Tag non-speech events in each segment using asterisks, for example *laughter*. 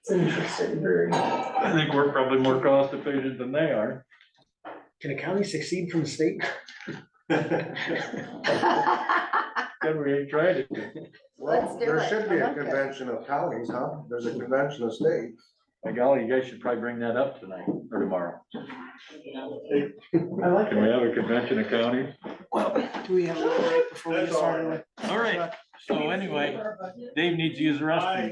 It's an interesting brewery. I think we're probably more cost efficient than they are. Can a county succeed from the state? Then we ain't tried it. Well, Let's do there it. should be I a like that. convention of counties, huh? There's a convention of states. By golly, you guys should probably bring that up tonight or tomorrow. I like Can we have a convention of counties? Do we have a little break before we get started? All right, so anyway, Dave needs to use the restroom.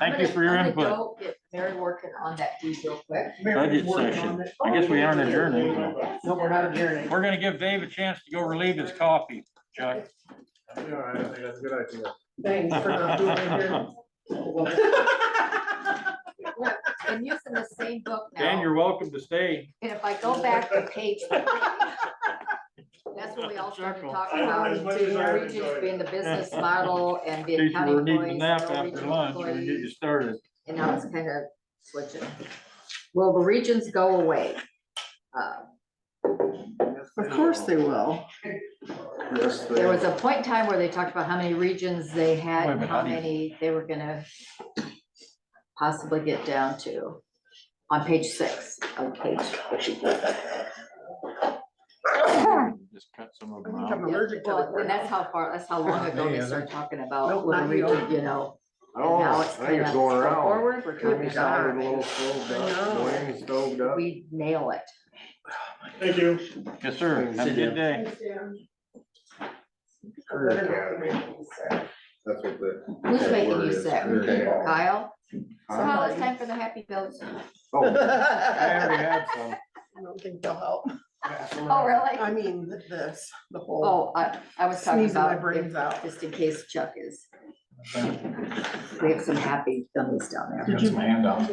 Thank you for your input. Mary working on that deed real quick. Budget session. I guess we aren't adjourning. though. No, we're not adjourning. We're gonna give Dave a chance to go relieve his coffee, Chuck. Yeah, I think that's a good idea. Thanks for not doing it here. I'm using the same book *laughs* Dan, now, you're welcome to stay. and if I go back to page three, that's when we all started talking about As much as I regions enjoyed being the business model and In being case county you were needing a nap employees, no after regional lunch, we can get employees. you *laughs* started. And now it's kind of switching. Will the regions go away? Uh, Of course they will. Yes, they- There was a point in time where they talked about how many regions they had Wait a and minute, how how do you- many they were gonna possibly get down to on page six, on page. Just cut some of I think them out. I'm allergic to Well, the. and that's how far, that's how long ago they started talking about Nope, little not you. region, you know. and Oh, now I it's think it's kinda going go around. Forward, we're Jimmy doing sounded a little it. stove I up, know. Dwayne stoved up. We nail it. Thank you. Yes, sir. Have a good day. That's what the. Who's that making word you is, sick? Career Academy. Kyle, so *laughs* Huh? Kyle, it's time for the happy bills. Oh, I I already had some. don't think they'll help. Oh, really? I mean, th- this, the whole Oh, I, I was talking sneezing my about, brains if- out. just in case Chuck is. We have some happy bills down there. Did you, handouts.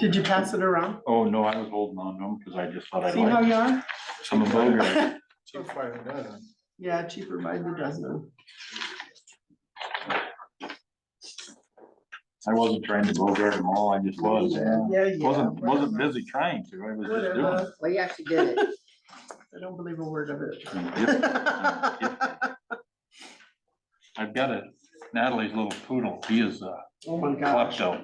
did you pass it around? Oh, no, I was holding on to them because I just thought I'd See how like you are? some of those. *laughs* Two by the dozen. Yeah, cheaper by the dozen. I wasn't trying to go there at all. I just was. Yeah, yeah. Wasn't, wasn't whatever. busy trying to. I was just doing. Whatever. it. Well, you actually did *laughs* it. I don't believe a word of it. Yep, I've got a Natalie's little poodle. He is a *laughs* Oh my gosh. klepto.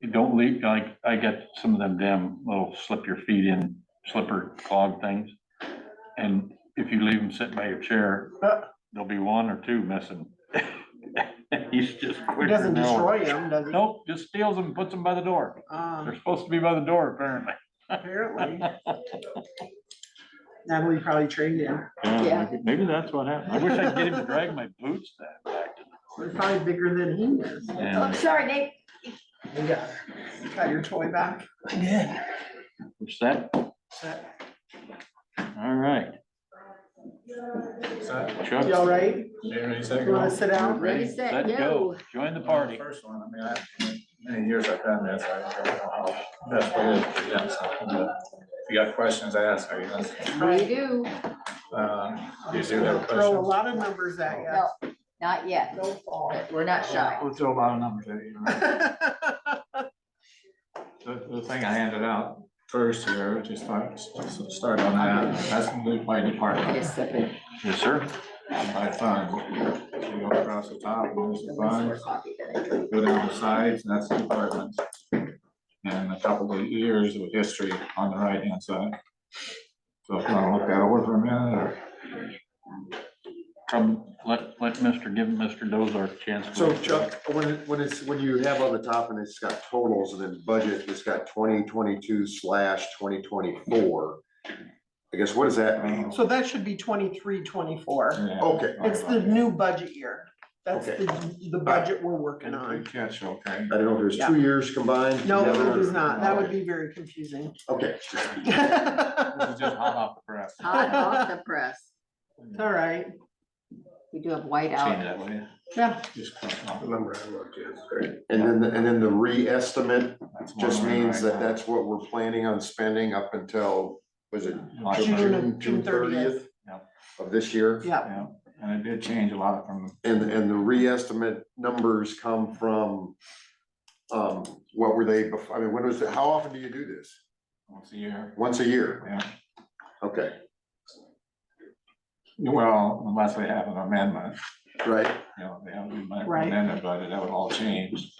You don't leave, I, I got some of them damn little slip your feet in slipper clog things. And if you leave them sitting by your chair, Uh. there'll be one or two missing. *laughs* He's just It quicker doesn't than hell. destroy them, does it? Nope, just steals them, puts them by the door. Um, They're supposed to be by the door apparently. apparently. Natalie probably traded him. Yeah. maybe- Maybe that's what happened. I wish I could get him to drag my boots that back. They're probably bigger than he is. Oh, I'm And sorry, Nate. Yeah. Got your toy back. I did. Which that, all right. Chuck, You all right? You wanna sit down? Ready, ready, set, let go. Join the party. First one, I mean, I, many years I've done this, I don't know how best it is to present something, but if you got questions, ask, I guess. We do. Uh, you do have Throw a questions. lot of numbers at No, not yet. you. Don't fall. but We're not shy. We'll throw a lot of numbers at you. right? The, the thing I handed out first here, just start, start on that, that's moved by I department, just said it. Yes, sir. by fund. You go across the top, there's the At least funds. we're coffee that I drink. go down the sides, and that's the apartments. And a couple of years of history on the right-hand side. So if you want to look that over for a minute, or Come, let, let Mr. give Mr. Dozar a chance. to- So Chuck, when it, when it's, when you have on the top and it's got totals and then budget, it's got twenty twenty-two slash twenty twenty-four. I guess, what does that mean? *laughs* So that should be twenty-three, twenty-four. Yeah. Okay, It's the new budget year. That's Okay. the, the budget we're working Good on. catch, okay. I don't know if there's two years combined. No, together. it is not. That would be very confusing. *laughs* Okay, It's This is just hot off the press. Hot off the press. all right. We do have white Change out. that way. Oh. Yeah. Just cut off. remember I looked yesterday. And then, the- and then the re-estimate That's one just right means that now. that's what we're planning on spending up until, was it Like, June of- June, June June 30th. thirtieth? Yep. Of this year? Yeah. Yeah, and it did change a lot from, And, and the re-estimate numbers come from, um, what were they before, I mean, when was, it- how often do you do this? once a year, Once a year? yeah. Okay, Well, unless they have an amendment. right, you know, they haven't been Right. amended, but that would all change.